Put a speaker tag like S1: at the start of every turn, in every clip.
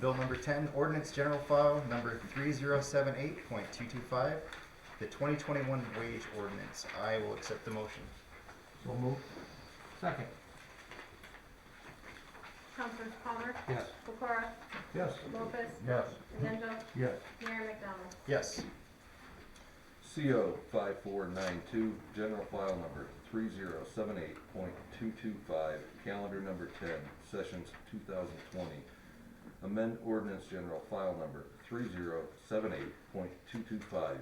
S1: Bill number ten, ordinance general file number three zero seven eight point two two five, the twenty twenty-one wage ordinance. I will accept the motion.
S2: So moved. Second.
S3: Councilors Palmer,
S2: Yes.
S3: Pecora,
S2: Yes.
S3: Lopez,
S2: Yes.
S3: Mandel,
S2: Yes.
S3: Mayor McDonald.
S1: Yes,
S4: CO five four nine two, general file number three zero seven eight point two two five, calendar number ten, sessions two thousand twenty. Amend ordinance general file number three zero seven eight point two two five,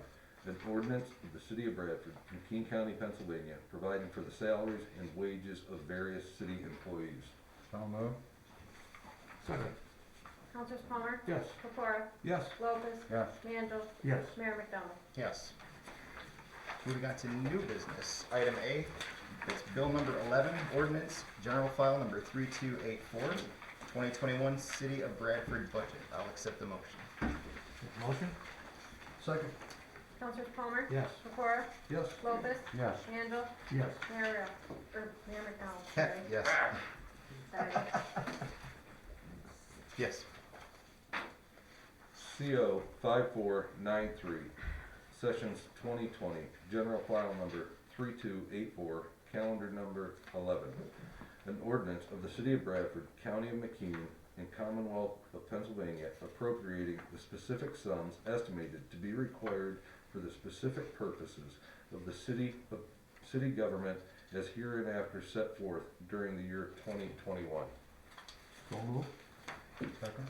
S4: an ordinance of the city of Bradford, McKean County, Pennsylvania, providing for the salaries and wages of various city employees.
S2: So moved. Second.
S3: Councilors Palmer,
S2: Yes.
S3: Pecora,
S2: Yes.
S3: Lopez,
S2: Yes.
S3: Mandel,
S2: Yes.
S3: Mayor McDonald.
S1: yes. Moving on to new business, item A, it's bill number eleven, ordinance general file number three two eight four, twenty twenty-one city of Bradford budget. I'll accept the motion.
S2: Motion? Second.
S3: Councilors Palmer,
S2: Yes.
S3: Pecora,
S2: Yes.
S3: Lopez,
S2: Yes.
S3: Mandel,
S2: Yes.
S3: Mayor, uh, or Mayor McDonald, sorry.
S1: Yes,
S3: Sorry.
S1: yes,
S4: CO five four nine three, sessions twenty twenty, general file number three two eight four, calendar number eleven. An ordinance of the city of Bradford, county of McKean, and Commonwealth of Pennsylvania appropriating the specific sums estimated to be required for the specific purposes of the city, of city government as hereinafter set forth during the year twenty twenty-one.
S2: So moved. Second.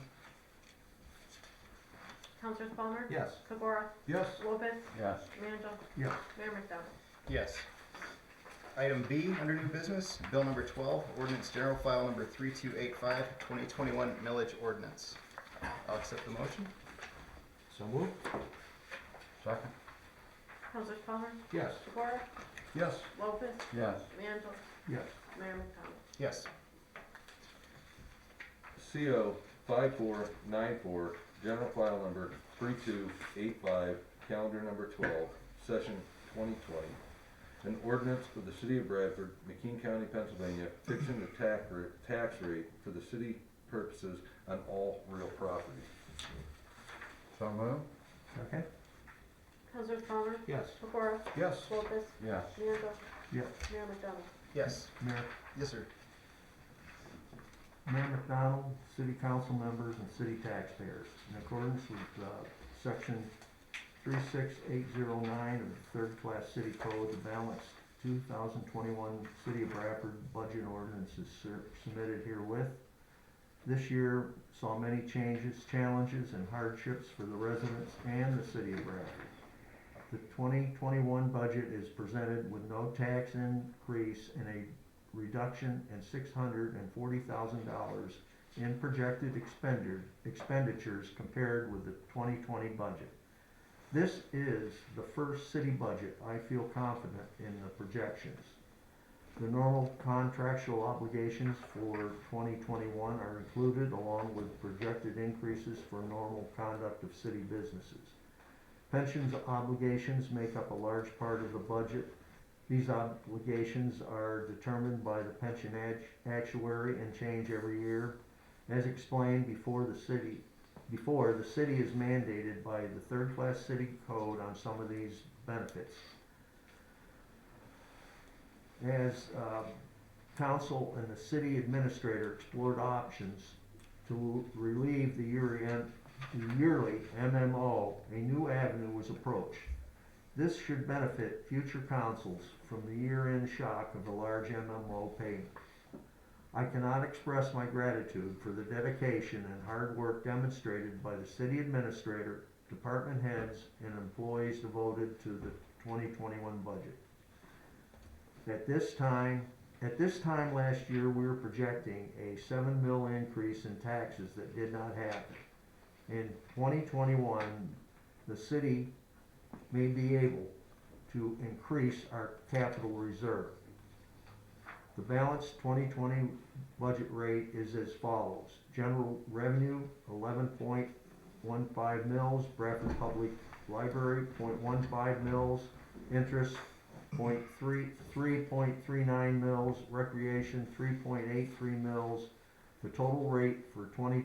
S3: Councilors Palmer,
S2: Yes.
S3: Pecora,
S2: Yes.
S3: Lopez,
S2: Yes.
S3: Mandel,
S2: Yes.
S3: Mayor McDonald.
S1: yes. Item B, under new business, bill number twelve, ordinance general file number three two eight five, twenty twenty-one millage ordinance. I'll accept the motion.
S2: So moved. Second.
S3: Councilors Palmer,
S2: Yes.
S3: Pecora,
S2: Yes.
S3: Lopez,
S2: Yes.
S3: Mandel,
S2: Yes.
S3: Mayor McDonald.
S1: Yes,
S4: CO five four nine four, general file number three two eight five, calendar number twelve, session twenty twenty. An ordinance for the city of Bradford, McKean County, Pennsylvania, fixing the tax rate, tax rate for the city purposes on all real property.
S2: So moved. Second.
S3: Councilors Palmer,
S2: Yes.
S3: Pecora,
S2: Yes.
S3: Lopez,
S2: Yes.
S3: Mandel,
S2: Yes.
S3: Mayor McDonald.
S1: yes,
S5: Mayor,
S1: yes, sir.
S5: Mayor McDonald, city council members, and city taxpayers. In accordance with, uh, section three six eight zero nine of the third-class city code, the balanced two thousand twenty-one city of Bradford budget ordinance is sur- submitted herewith. This year saw many changes, challenges, and hardships for the residents and the city of Bradford. The twenty twenty-one budget is presented with no tax increase and a reduction in six hundred and forty thousand dollars in projected expended, expenditures compared with the twenty twenty budget. This is the first city budget I feel confident in the projections. The normal contractual obligations for twenty twenty-one are included along with projected increases for normal conduct of city businesses. Pensions obligations make up a large part of the budget, these obligations are determined by the pension act- actuary and change every year. As explained before the city, before, the city is mandated by the third-class city code on some of these benefits. As um, council and the city administrator explored options to relieve the yearly, the yearly MMO, a new avenue was approached. This should benefit future councils from the year-end shock of the large MMO payment. I cannot express my gratitude for the dedication and hard work demonstrated by the city administrator, department heads, and employees devoted to the 2021 budget. At this time, at this time last year, we were projecting a 7 mil increase in taxes that did not happen. In 2021, the city may be able to increase our capital reserve. The balanced 2020 budget rate is as follows. General revenue, 11.15 mils, Bradford Public Library, 0.15 mils, interest, 0.3 3.39 mils, recreation, 3.83 mils. The total rate for 2020